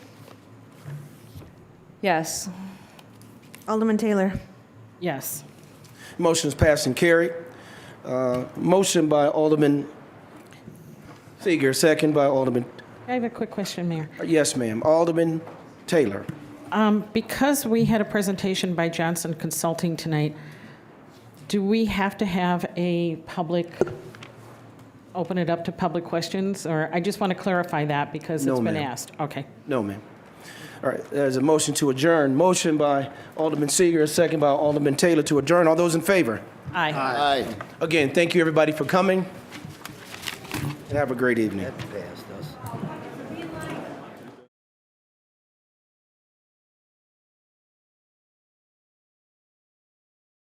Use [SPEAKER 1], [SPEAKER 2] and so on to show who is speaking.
[SPEAKER 1] Yes.
[SPEAKER 2] Alderman Taylor.
[SPEAKER 3] Yes.
[SPEAKER 4] Motion is passed and carried. Uh, Motion by Alderman Seeger, second by Alderman,
[SPEAKER 3] I have a quick question, Mayor.
[SPEAKER 4] yes, ma'am, Alderman Taylor.
[SPEAKER 3] Um, Because we had a presentation by Johnson Consulting tonight, do we have to have a public, open it up to public questions? Or, I just want to clarify that because it's
[SPEAKER 4] No,
[SPEAKER 3] been
[SPEAKER 4] ma'am.
[SPEAKER 3] asked. Okay.
[SPEAKER 4] No, ma'am. All right, there's a motion to adjourn. Motion by Alderman Seeger, second by Alderman Taylor to adjourn. All those in favor?
[SPEAKER 3] Aye.
[SPEAKER 5] Aye.
[SPEAKER 4] Again, thank you, everybody, for coming, and have a great evening.
[SPEAKER 5] That passed.